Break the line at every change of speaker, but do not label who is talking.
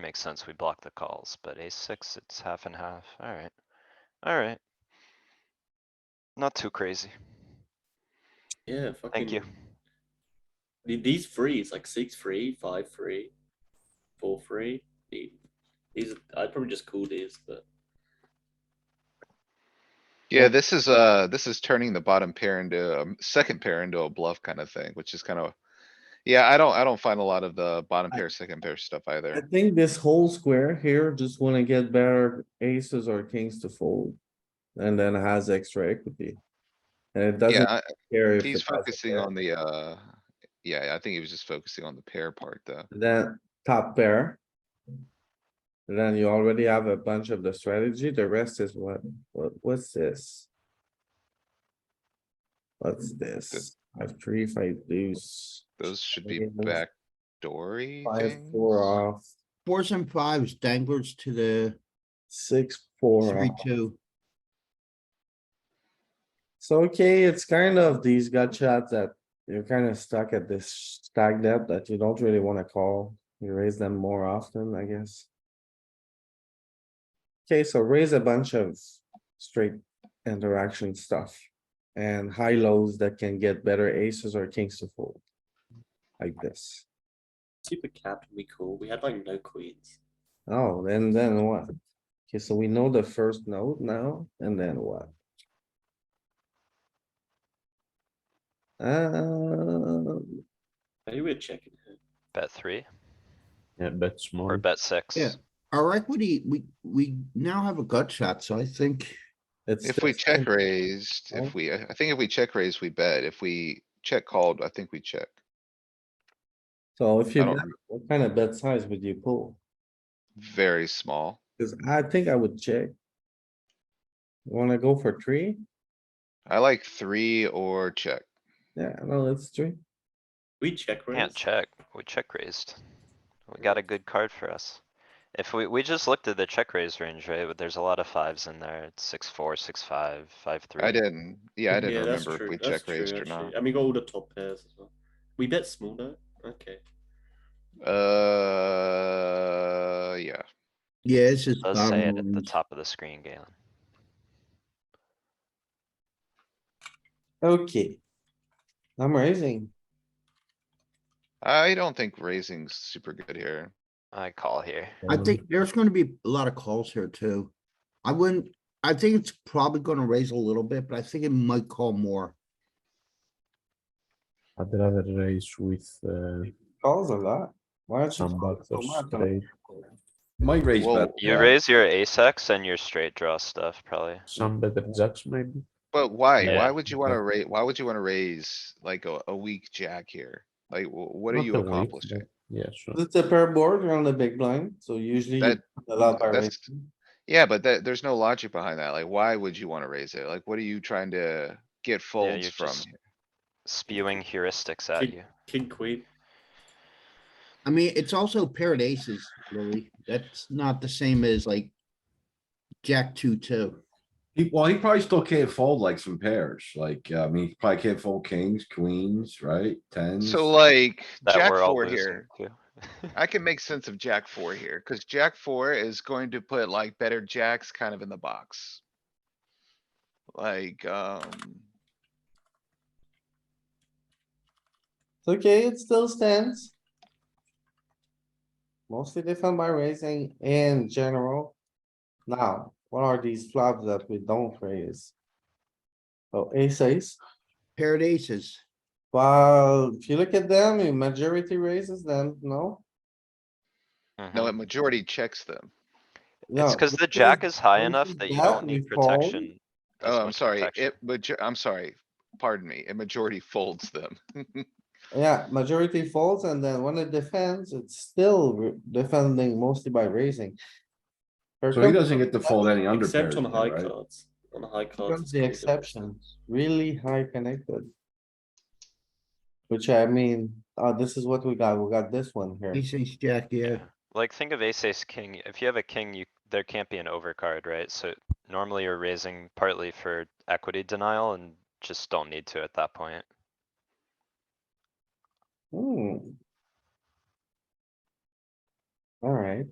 makes sense. We block the calls, but ace six, it's half and half. Alright. Alright. Not too crazy.
Yeah, fucking.
Thank you.
the- These threes, like six free, five free, four free. The- These, I'd probably just call these, but
Yeah, this is, uh, this is turning the bottom pair into, um, second pair into a bluff kind of thing, which is kind of. Yeah, I don't, I don't find a lot of the bottom pair, second pair stuff
I
either.
think this whole square here just wanna get better aces or kings to fold. And then has extra equity. And it doesn't
Yeah, I-
care if.
he's
it has a
focusing
pair.
on the, uh, yeah, I think he was just focusing on the pair part though.
Then top pair. Then you already have a bunch of the strategy. The rest is what, what, what's this? What's this? I've three, five deuce.
Those should be
Maybe those
backdoory
Five,
things.
four off,
Fours and fives danglers to the
six, four
three,
off.
two.
So, okay, it's kind of these gut shots that you're kind of stuck at this stack depth that you don't really wanna call. You raise them more often, I guess. Okay, so raise a bunch of straight interaction stuff and high lows that can get better aces or kings to fold. Like this.
super capped. We call. We had like no queens.
Oh, then, then what? Okay, so we know the first note now, and then what? Uh,
Maybe we're checking here.
Bet three
Yeah, bet small.
or bet six.
Yeah. Our equity, we, we now have a gut shot, so I think
it's.
If we
just-
check raised,
Right?
if we, I I think if we check raised, we bet. If we check called, I think we check.
So if
I
you,
don't
bet, what kind of bet size would you pull?
Very small.
Cause I think I would check. Wanna go for three?
I like three or check.
Yeah, no, it's three.
We check raise.
Can't check. We check raised. We got a good card for us. If we, we just looked at the check raise range, right? But there's a lot of fives in there. It's six, four, six, five, five, three.
I didn't, yeah, I didn't
that's
remember
true,
if we
that's
check
true,
raised or
actually.
not.
And we got all the top pairs as well. We bet small though. Okay.
Uh, yeah,
Yeah, it's just.
Does
bottom
say it at the
lines.
top of the screen, Galen.
Okay. I'm raising.
I don't think raising's super good here.
I call here.
I think there's gonna be a lot of calls here too. I wouldn't, I think it's probably gonna raise a little bit, but I think it might call more.
I'd rather raise with uh,
Calls a lot. Why don't you?
some
call
bucks
so
or
much on-
straight,
My raise
Whoa.
bet.
You
yeah.
raise your ace X and your straight draw stuff, probably.
some better jacks maybe.
But why?
Yeah,
Why would you wanna
but-
raise? why would you wanna raise like a, a weak jack here? Like, wh- what are
Not
you
the weak,
accomplishing?
but- Yeah, sure.
It's a pair board, you're on the big blind, so usually. you
That-
put a lot by
that's-
raising.
Yeah, but that, there's no logic behind that. Like, why would you wanna raise it? Like, what are you trying to get folds
you're
from?
just- Spewing heuristics at
Keep-
you.
King queen.
I mean, it's also paired aces, really. That's not the same as like jack two, two.
He- Well, he probably still can't fold like some pairs, like, uh, I mean, he probably can't fold kings, queens, right? Tens.
So like,
That
jack
we're all
four
losing
here.
to.
I can make sense of jack four here, cuz jack four is going to put like better jacks kind of in the box. Like, um,
It's okay, it still stands. Mostly defend by raising in general. Now, what are these flops that we don't raise? Oh, So ace ace,
Paired aces.
well, if you look at them, the majority raises them, no?
no,
Mhm.
a majority checks them.
It's
No,
cause the jack
because
is high enough
raising
that you
jack,
don't
we
need
fold.
protection. as
Oh, I'm
much
sorry,
protection.
it, but I'm sorry, pardon me, a majority folds them.
Yeah, majority folds and then when it defends, it's still re- defending mostly by raising. Here
So he
comes-
doesn't get to fold any under pairs,
Except on high
here, right?
cards. On high
Here
cards. it's
comes the
called a-
exception, really high connected. Which I mean, uh, this is what we got, we got this one here.
Ace, ace, jack, yeah.
Like, think of ace, ace, king. If you have a king, you, there can't be an overcard, right? So normally you're raising partly for equity denial and just don't need to at that point.
Hmm. Alright,